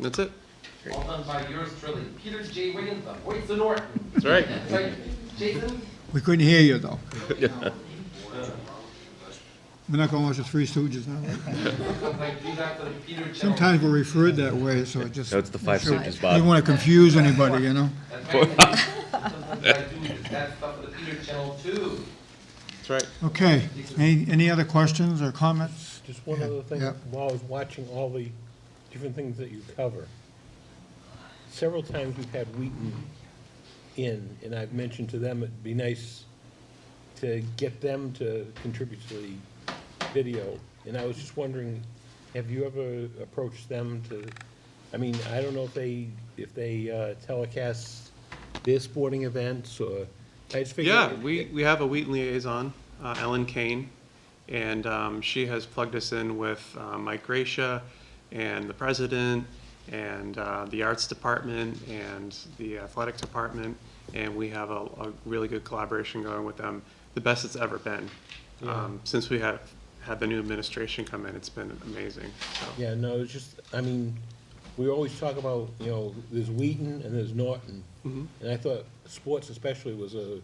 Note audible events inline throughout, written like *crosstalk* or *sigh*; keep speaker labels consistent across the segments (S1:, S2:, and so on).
S1: That's it.
S2: All done by yours truly, Peter J. Wiggins, the voice of Norton.
S1: That's right.
S2: That's right, Jason?
S3: We couldn't hear you,
S4: *laughs*
S3: though. We're not going to watch the Three Stooges now.
S2: Sounds like he's after the Peter Channel.
S3: Sometimes we're referred that way, so it just,
S4: No, it's the Five Stooges,
S3: we don't
S4: Bob.
S3: want to confuse anybody, you know?
S2: That's right. Sometimes I do just that stuff for the Peter Channel too.
S1: That's right.
S3: Okay, any, any other questions or comments?
S5: Just one other thing,
S3: yeah.
S5: while I was watching all the different things that you cover, several times we've had Wheaton in, and I've mentioned to them, it'd be nice to get them to contribute to the video. And I was just wondering, have you ever approached them to, I mean, I don't know if they, if they uh, telecast their sporting events or, I just figured.
S1: Yeah, we, we have a Wheaton liaison, uh, Ellen Kane, and um, she has plugged us in with uh, Mike Gracia and the president and uh, the arts department and the athletic department, and we have a, a really good collaboration going with them, the best it's ever been. Um, Since we have had the new administration come in, it's been amazing, so.
S5: Yeah, no, it's just, I mean, we always talk about, you know, there's Wheaton and there's Norton. And I thought sports especially was a,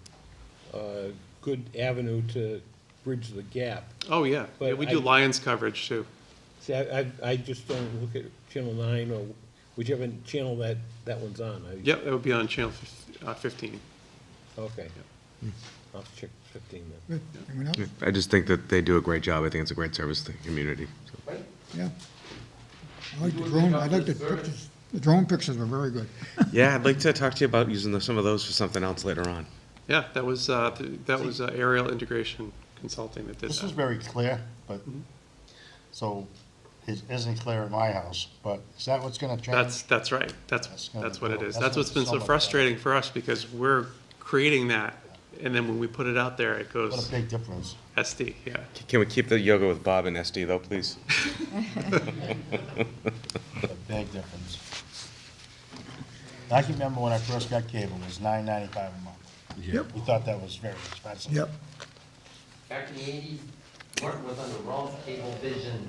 S5: a good avenue to bridge the gap.
S1: Oh, yeah, yeah,
S5: But
S1: we do
S5: I-
S1: Lions coverage too.
S5: See, I, I, I just don't look at Channel Nine or whichever channel that, that one's on. I-
S1: Yep, that would be on channel fif- uh, fifteen.
S5: Okay. I'll have to check fifteen then.
S3: Good. Anyone else?
S4: I just think that they do a great job. I think it's a great service to the community. so.
S2: Right?
S3: Yeah. I like the drone, I like the pictures, the drone pictures were very good.
S4: Yeah, I'd like to talk to you about using the- some of those for something else later on.
S1: Yeah, that was, uh, th- that was uh, Aerial Integration Consulting that did
S6: This is
S1: that.
S6: very clear, but, so it isn't clear in my house, but is that what's gonna change?
S1: That's, that's right, that's,
S6: That's gonna
S1: that's what it
S6: go-
S1: is.
S6: that's
S1: That's what's been
S6: gonna
S1: so
S6: sell it.
S1: frustrating for us, because we're creating that, and then when we put it out there, it
S6: What a
S1: goes
S6: big difference.
S1: SD, yeah.
S4: C- Can we keep the yoga with Bob and SD though, please?
S6: A big difference. I can remember when I first got cable, it was nine ninety-five a month.
S3: Yep.
S6: We thought that was very expensive.
S3: Yep.
S2: Back in the eighties, Norton was under Ron's Cable Vision.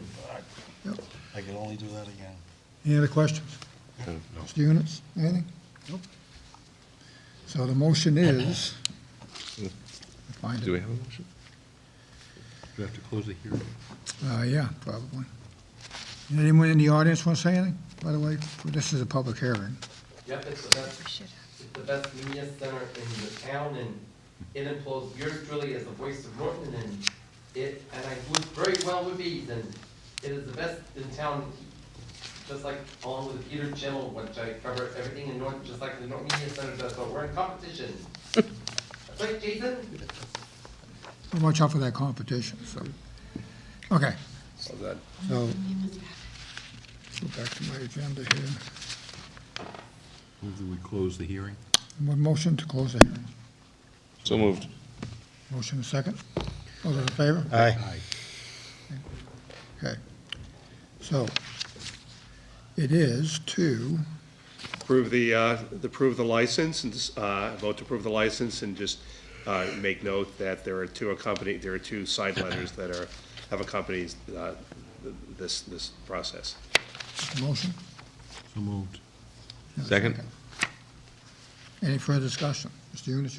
S6: I could only do that again.
S3: Any other questions? Mr. Units, anything? Nope. So the motion is,
S7: Hmm.
S3: find
S4: Do
S3: it,
S4: we have a motion?
S7: We have to close the hearing.
S3: uh, yeah, probably. Anyone in the audience want to say anything, by the way? This is a public hearing.
S2: Yep, it's the best, it's the best media center in the town, and it employs yours truly as the voice of Norton, and it, and I do it very well with these, and it is the best in town, just like along with the Peter Channel, which I cover everything in Norton, just like the Norton Media Center does, so we're in competition. That's right, Jason?
S3: Well, Watch out for that competition, so, okay. So, go back to my agenda here.
S7: Move that we close the hearing.
S3: Mo- Motion to close the hearing.
S4: So moved.
S3: Motion second. All those in favor?
S7: Aye.
S3: Okay. So, it is two,
S8: approve the, uh, approve the license and, uh, vote to approve the license and just, uh, make note that there are two accompany, there are two side letters that are, have accompanied, uh, th- this, this process.
S3: motion.
S7: So moved.
S4: Second?
S3: Any further discussion? Mr. Yunus,